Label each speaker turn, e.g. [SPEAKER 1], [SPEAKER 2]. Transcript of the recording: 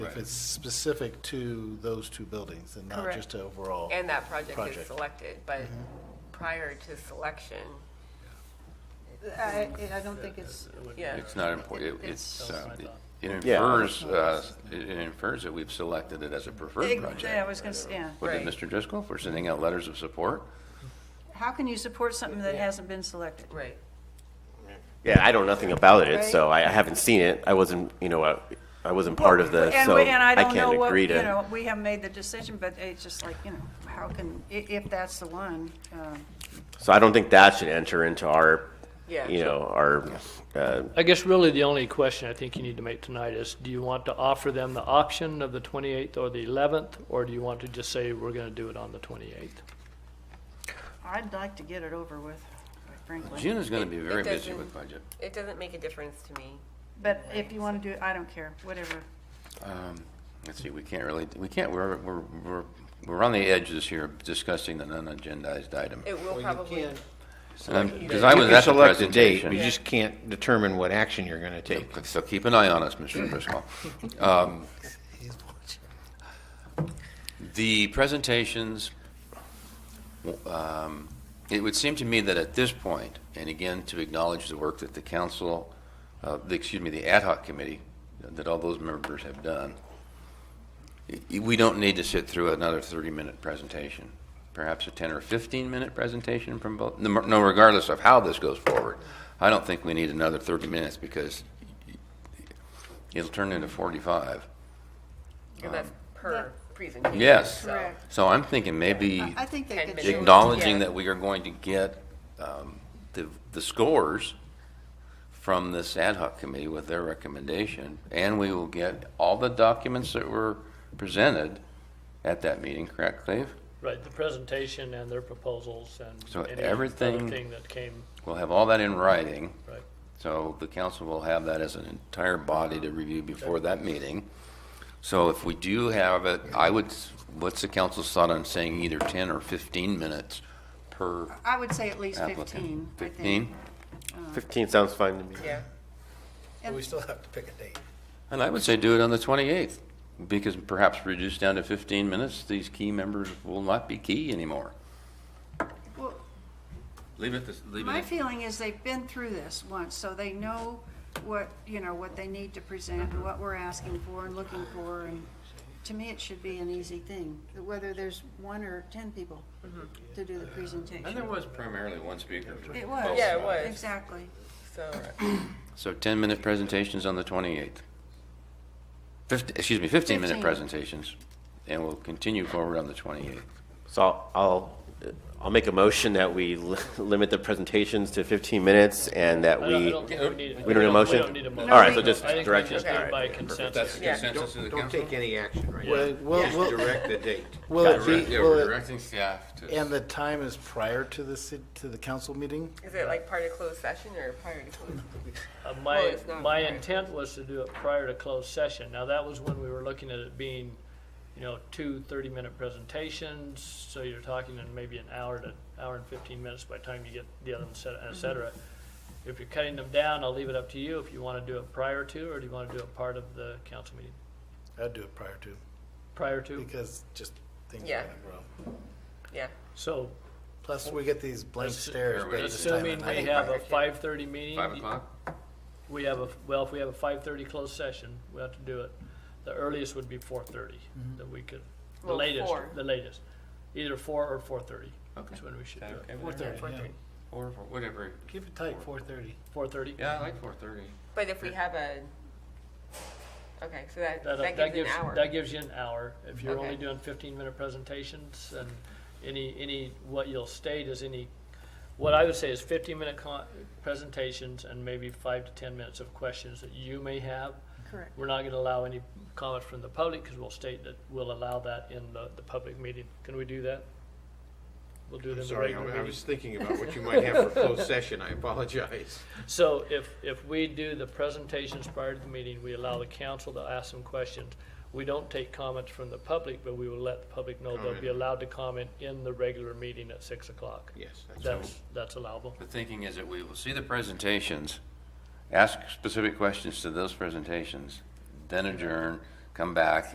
[SPEAKER 1] If it's specific to those two buildings and not
[SPEAKER 2] Correct.
[SPEAKER 1] just to overall.
[SPEAKER 3] And that project is
[SPEAKER 1] Project.
[SPEAKER 3] selected, but prior to selection,
[SPEAKER 2] I, I don't think it's,
[SPEAKER 3] yeah.
[SPEAKER 4] It's not important, it's, uh, it
[SPEAKER 5] Yeah.
[SPEAKER 4] infers, uh, it infers that we've selected it as a preferred
[SPEAKER 2] I
[SPEAKER 4] project.
[SPEAKER 2] was gonna say, yeah.
[SPEAKER 4] What
[SPEAKER 3] Right.
[SPEAKER 4] did Mr. Driscoll, for sending out letters of support?
[SPEAKER 2] How can you support something that hasn't been selected?
[SPEAKER 3] Right.
[SPEAKER 5] Yeah, I know nothing about it, so I I haven't seen it. I wasn't, you know, I I wasn't part of this,
[SPEAKER 2] And
[SPEAKER 5] so
[SPEAKER 2] we- and
[SPEAKER 5] I
[SPEAKER 2] don't know
[SPEAKER 5] can't
[SPEAKER 2] what-
[SPEAKER 5] agree
[SPEAKER 2] You
[SPEAKER 5] to.
[SPEAKER 2] know, we haven't made the decision, but it's just like, you know, how can, i- if that's the one, uh,
[SPEAKER 5] So I don't think that should enter into our,
[SPEAKER 3] Yeah.
[SPEAKER 5] you know, our, uh,
[SPEAKER 6] I guess really the only question I think you need to make tonight is, do you want to offer them the option of the 28th or the 11th? Or do you want to just say, we're going to do it on the 28th?
[SPEAKER 2] I'd like to get it over with, quite frankly.
[SPEAKER 4] June is going to be very busy
[SPEAKER 3] doesn't-
[SPEAKER 4] with budget.
[SPEAKER 3] It doesn't make a difference to me.
[SPEAKER 2] But if you wanna do it, I don't care, whatever.
[SPEAKER 4] Um, Let's see, we can't really, we can't, we're, we're, we're we're on the edge this year of discussing the non-agendized item. Um,
[SPEAKER 3] It will probably,
[SPEAKER 4] Because I was at the
[SPEAKER 7] select a date,
[SPEAKER 4] presentation.
[SPEAKER 7] You just can't determine what action you're going to take.
[SPEAKER 4] So keep an eye on us, Mr. Driscoll. Um, The presentations, um, it would seem to me that at this point, and again, to acknowledge the work that the council, uh, the- excuse me, the ad hoc committee, that all those members have done, y- we don't need to sit through another 30-minute presentation, perhaps a 10 or 15-minute presentation from both, no no, regardless of how this goes forward. I don't think we need another 30 minutes because it'll turn into 45.
[SPEAKER 3] and that's per presentation.
[SPEAKER 4] Yes.
[SPEAKER 3] so-
[SPEAKER 2] Correct.
[SPEAKER 4] So I'm thinking maybe
[SPEAKER 2] I think they
[SPEAKER 3] Ten
[SPEAKER 2] could
[SPEAKER 3] minutes.
[SPEAKER 2] shorten-
[SPEAKER 4] acknowledging
[SPEAKER 3] Yeah.
[SPEAKER 4] that we are going to get um, the, the scores from this ad hoc committee with their recommendation, and we will get all the documents that were presented at that meeting, correct, Cleve?
[SPEAKER 6] Right, the presentation and their proposals and.
[SPEAKER 4] So
[SPEAKER 6] any
[SPEAKER 4] everything-
[SPEAKER 6] Other thing that came,
[SPEAKER 4] We'll have all that in writing,
[SPEAKER 6] right.
[SPEAKER 4] so the council will have that as an entire body to review before that meeting. So if we do have it, I would, s- what's the council's thought on saying either 10 or 15 minutes per
[SPEAKER 2] I would say at least
[SPEAKER 4] applicant?
[SPEAKER 2] fifteen, I think.
[SPEAKER 4] 15?
[SPEAKER 5] 15 sounds fine to me.
[SPEAKER 3] Yeah.
[SPEAKER 1] We still have to pick a date.
[SPEAKER 4] And I would say do it on the 28th, because perhaps reduced down to 15 minutes, these key members will not be key anymore.
[SPEAKER 2] Well,
[SPEAKER 4] Leave it, this- leave
[SPEAKER 2] My
[SPEAKER 4] it.
[SPEAKER 2] feeling is they've been through this once, so they know what, you know, what they need to present,
[SPEAKER 3] Uh-huh.
[SPEAKER 2] and what we're asking for and looking for, and to me, it should be an easy thing, whether there's one or ten people
[SPEAKER 3] Mm-hmm.
[SPEAKER 2] to do the
[SPEAKER 4] And there
[SPEAKER 2] presentation.
[SPEAKER 4] was primarily one speaker. for
[SPEAKER 2] It was.
[SPEAKER 4] both
[SPEAKER 3] Yeah, it
[SPEAKER 4] sides.
[SPEAKER 3] was.
[SPEAKER 2] Exactly.
[SPEAKER 3] So,
[SPEAKER 4] So 10-minute presentations on the 28th. 15, excuse me, 15-minute
[SPEAKER 2] 15.
[SPEAKER 4] presentations, and we'll continue forward on the 28th.
[SPEAKER 5] So I'll- I'll, I'll make a motion that we li- limit the presentations to 15 minutes and that
[SPEAKER 6] I don't- I
[SPEAKER 5] we,
[SPEAKER 6] don't think we need.
[SPEAKER 5] we don't need a motion?
[SPEAKER 6] We don't need a motion.
[SPEAKER 5] All right, so just
[SPEAKER 6] I think we
[SPEAKER 5] direction.
[SPEAKER 6] just do it by consensus.
[SPEAKER 3] Yeah.
[SPEAKER 4] consensus of the
[SPEAKER 7] Don't take any action right
[SPEAKER 1] Will, will- will-
[SPEAKER 7] the date.
[SPEAKER 1] will it be, will it,
[SPEAKER 4] directing staff to.
[SPEAKER 1] and the time is prior to the, ci- to the council meeting?
[SPEAKER 3] is it like part of closed session or prior to closed?
[SPEAKER 6] Uh,
[SPEAKER 3] Well,
[SPEAKER 6] My,
[SPEAKER 3] Oh, it's not
[SPEAKER 6] my
[SPEAKER 3] prior.
[SPEAKER 6] intent was to do it prior to closed session. Now, that was when we were looking at it being, you know, two 30-minute presentations, so you're talking in maybe an hour to, hour and 15 minutes by the time you get the other one set, et cetera.
[SPEAKER 3] Mm-hmm.
[SPEAKER 6] If you're cutting them down, I'll leave it up to you if you want to do it prior to, or do you want to do it part of the council meeting?
[SPEAKER 1] I'd do it prior to,
[SPEAKER 6] Prior to?
[SPEAKER 1] because just things are
[SPEAKER 3] Yeah.
[SPEAKER 1] gonna grow.
[SPEAKER 3] Yeah,
[SPEAKER 6] So
[SPEAKER 1] Plus, we get these blank stares. by this time of
[SPEAKER 6] assuming
[SPEAKER 1] night.
[SPEAKER 6] we have
[SPEAKER 3] prior
[SPEAKER 6] a
[SPEAKER 3] to.
[SPEAKER 6] 5:30 meeting.
[SPEAKER 4] 5 o'clock?
[SPEAKER 6] We have a, well, if we have a five-thirty closed session, we have to do it, the earliest would be four-thirty,
[SPEAKER 4] Mm-hmm.
[SPEAKER 6] that we could, the
[SPEAKER 3] Well,
[SPEAKER 6] latest,
[SPEAKER 3] four.
[SPEAKER 6] the latest. Either four or four-thirty
[SPEAKER 4] Okay.
[SPEAKER 6] is when we should do it.
[SPEAKER 1] Four
[SPEAKER 3] yeah,
[SPEAKER 1] thirty,
[SPEAKER 3] four
[SPEAKER 1] yeah.
[SPEAKER 3] thirty.
[SPEAKER 4] Or whatever.
[SPEAKER 1] Keep it tight, four thirty.
[SPEAKER 6] Four-thirty?
[SPEAKER 4] Yeah, I like 4:30.
[SPEAKER 3] But if we have a, okay, so that, that
[SPEAKER 6] That
[SPEAKER 3] gives
[SPEAKER 6] gives,
[SPEAKER 3] an hour.
[SPEAKER 6] that gives you an hour. If you're only
[SPEAKER 3] Okay.
[SPEAKER 6] doing fifteen-minute presentations and any, any, what you'll state is any, what I would say is fifteen-minute con, presentations and maybe five to ten minutes of questions that you may have.
[SPEAKER 2] Correct.
[SPEAKER 6] We're not gonna allow any comments from the public, because we'll state that we'll allow that in the, the public meeting. Can we do that? We'll do it in the
[SPEAKER 7] Sorry,
[SPEAKER 6] regular
[SPEAKER 7] I I
[SPEAKER 6] meeting.
[SPEAKER 7] was thinking about what you might have for closed session. I apologize.
[SPEAKER 6] So if, if we do the presentations prior to the meeting, we allow the council to ask some questions. We don't take comments from the public, but we will let the public know they'll be
[SPEAKER 7] Comment.
[SPEAKER 6] allowed to comment in the regular meeting at six o'clock.
[SPEAKER 7] Yes, that's
[SPEAKER 6] That's, that's allowable.
[SPEAKER 4] The thinking is that we will see the presentations, ask specific questions to those presentations, then adjourn, come back,